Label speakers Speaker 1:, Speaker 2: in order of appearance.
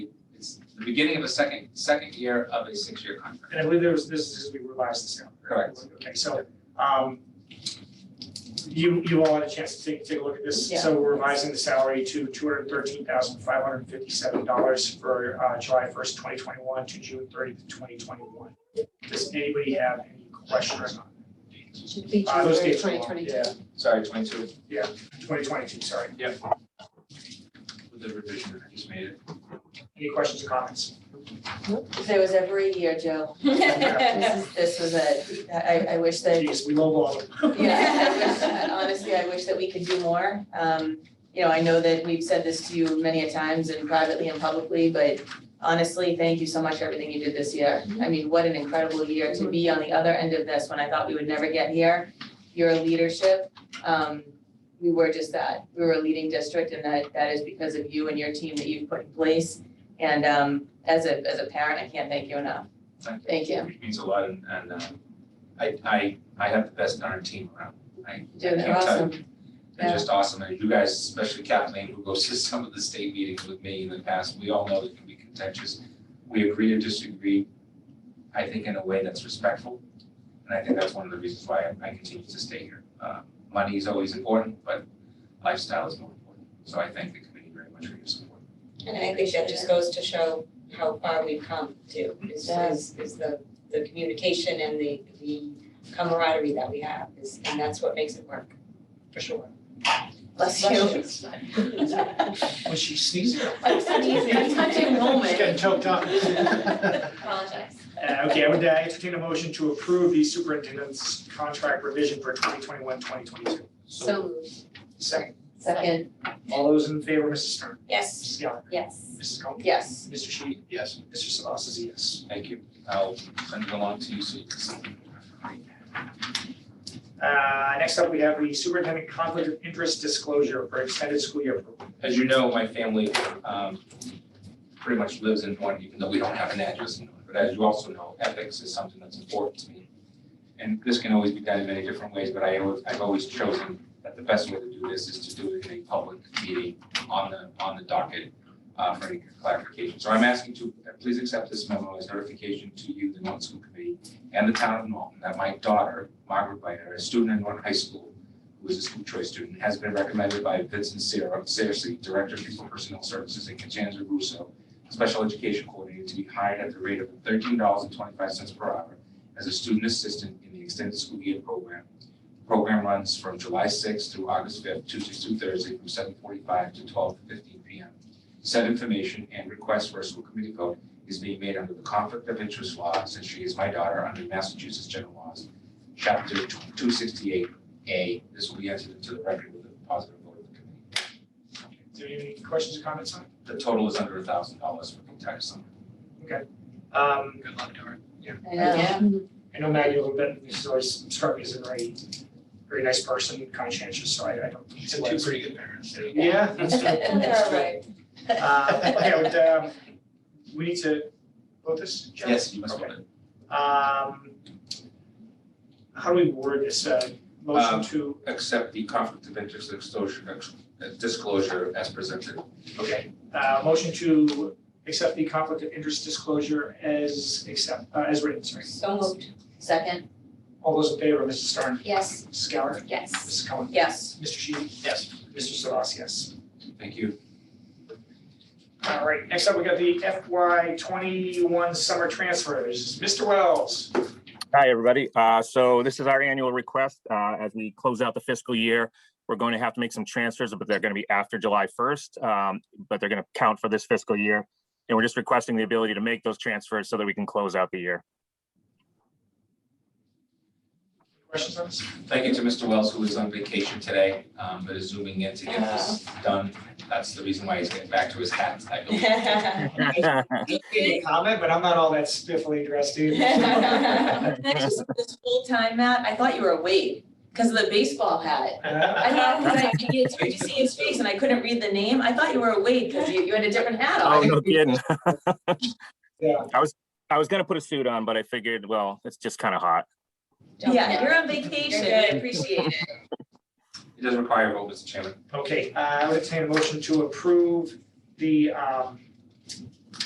Speaker 1: the beginning of a second, second year of a six-year contract.
Speaker 2: And I believe there was, this is, we revised this now.
Speaker 1: Correct.
Speaker 2: Okay, so, um, you, you all had a chance to take, take a look at this.
Speaker 3: Yeah.
Speaker 2: So we're revising the salary to two hundred thirteen thousand five hundred fifty-seven dollars for, uh, July first, twenty twenty-one to June thirtieth, twenty twenty-one. Does anybody have any questions on
Speaker 3: Should be
Speaker 2: Uh, those
Speaker 3: January
Speaker 2: dates are
Speaker 3: twenty
Speaker 2: long,
Speaker 3: twenty-two.
Speaker 2: yeah.
Speaker 1: Sorry, twenty-two
Speaker 2: twenty twenty-two, sorry?
Speaker 1: with the revision I just made. it.
Speaker 2: Any questions or comments?
Speaker 3: If there was ever a year, Joe,
Speaker 2: Yeah.
Speaker 4: Yeah.
Speaker 3: this is, this was it. I, I wish that,
Speaker 2: Geez, we lowballed them.
Speaker 3: yeah, I wish, honestly, I wish that we could do more. Um, you know, I know that we've said this to you many a times and privately and publicly, but honestly, thank you so much for everything you did this year. I mean, what an incredible year to be on the other end of this when I thought we would never get here. Your leadership, um, we were just that. We were a leading district and that, that is because of you and your team that you've put in place. And, um, as a, as a parent, I can't thank you enough.
Speaker 1: Thank
Speaker 3: Thank you.
Speaker 1: It means a lot and, and, um, I, I, I have the best darn team around. I,
Speaker 3: Dude,
Speaker 1: I
Speaker 3: they're
Speaker 1: can't tell you.
Speaker 3: awesome.
Speaker 1: They're
Speaker 3: Yeah.
Speaker 1: just awesome, and you guys, especially Kathleen, who goes to some of the state meetings with me in the past, we all know it can be contentious. We agree to disagree, I think in a way that's respectful, and I think that's one of the reasons why I- I continue to stay here. Uh, Money is always important, but lifestyle is more important, so I thank the committee very much for your support.
Speaker 4: And I think that just goes to show how far we've come too, is is is the the communication and the the camaraderie that we have is, and that's what makes it work, for sure.
Speaker 3: Bless you.
Speaker 5: Was she sneezing?
Speaker 3: I'm sneezing, I'm touching moment.
Speaker 5: She's getting choked up.
Speaker 4: Apologize.
Speaker 2: Uh, okay, I would uh, entertain a motion to approve the superintendent's contract revision for 2021-2022.
Speaker 3: So moved.
Speaker 2: Second,
Speaker 3: Second,
Speaker 2: all those in favor, Mrs. Stern,
Speaker 4: Yes,
Speaker 2: Mrs. Gallagher,
Speaker 4: yes.
Speaker 2: Mrs. Cohen,
Speaker 3: yes.
Speaker 2: Mr. Sheedy,
Speaker 5: Yes.
Speaker 2: Mr. Sabas is a yes.
Speaker 1: Thank you, I'll send it along to you so you can see.
Speaker 2: Uh, next up, we have the superintendent conflict of interest disclosure for extended school year program.
Speaker 1: As you know, my family um, pretty much lives in Norton, even though we don't have an address in Norton. But as you also know, ethics is something that's important to me. And this can always be done in many different ways, but I always, I've always chosen that the best way to do this is to do it in a public meeting on the, on the docket uh, for any clarification. So I'm asking to, uh, please accept this memo as notification to you, the Norton School Committee, and the town of Norton, that my daughter, Margaret Biter, a student at Norton High School, who is a school choice student, has been recommended by Vincent Sarah, Sarsi, Director of People Personnel Services, and Katanza Russo, Special Education Coordinator, to be hired at the rate of thirteen dollars and twenty-five cents per hour as a student assistant in the extended school year program. Program runs from July sixth through August fifth, Tuesdays through Thursday, from seven forty-five to twelve fifteen P M. Said information and request for a school committee vote is being made under the Conflict of Interest Law, since she is my daughter, under Massachusetts General Laws, Chapter two sixty-eight, a, this will be entered into the record with a positive vote of the committee.
Speaker 2: Do you have any questions or comments on?
Speaker 1: The total is under a thousand dollars for the entire summer.
Speaker 2: it? Okay. Um,
Speaker 5: Good luck, Doran.
Speaker 3: I know.
Speaker 2: I know Maggie a little bit, she's always struck me as a very, very nice person, conscientious, so I, I don't.
Speaker 5: She's two pretty good parents.
Speaker 2: Yeah, that's true.
Speaker 3: That's
Speaker 2: true.
Speaker 4: right.
Speaker 2: Uh, okay, but, um, we need to vote this, Jeff?
Speaker 1: Yes, you must vote
Speaker 2: Okay.
Speaker 1: it.
Speaker 2: Um, how do we word this, uh, motion
Speaker 1: Um,
Speaker 2: to,
Speaker 1: Accept the conflict of interest exposure, ex- uh, disclosure as presented.
Speaker 2: okay, uh, motion to accept the conflict of interest disclosure as accept, uh, as written, sorry.
Speaker 4: So moved.
Speaker 3: Second,
Speaker 2: All those in favor, Mrs. Stern,
Speaker 4: Yes.
Speaker 2: Mrs. Gallagher,
Speaker 4: Yes.
Speaker 2: Mrs. Cohen,
Speaker 3: yes.
Speaker 2: Mr. Sheedy,
Speaker 5: Yes.
Speaker 2: Mr. Salas, yes.
Speaker 1: Thank you.
Speaker 2: All right, next up, we got the FY twenty-one summer transfers, Mr. Wells.
Speaker 6: Hi, everybody. Uh, So this is our annual request. Uh, As we close out the fiscal year, we're going to have to make some transfers, but they're going to be after July 1st. um, But they're going to count for this fiscal year. And we're just requesting the ability to make those transfers so that we can close out the year.
Speaker 2: Questions on this?
Speaker 1: Thank you to Mr. Wells, who is on vacation today, um, but is zooming in to get this done. That's the reason why he's getting back to his hat, I believe.
Speaker 2: Any comment, but I'm not all that spiffily dressed either.
Speaker 3: Can I just, this whole time, Matt, I thought you were awake because of the baseball hat. I thought, because I you could just see his face and I couldn't read the name. I thought you were awake because you, you had a different hat
Speaker 6: Oh,
Speaker 3: on.
Speaker 6: no kidding.
Speaker 2: Yeah.
Speaker 6: I was, I was going to put a suit on, but I figured, well, it's just kind of hot.
Speaker 3: Yeah, you're on vacation. I appreciate it.
Speaker 1: It does require a vote, Mr. Chairman.
Speaker 2: Okay, uh, I would entertain a motion to approve the um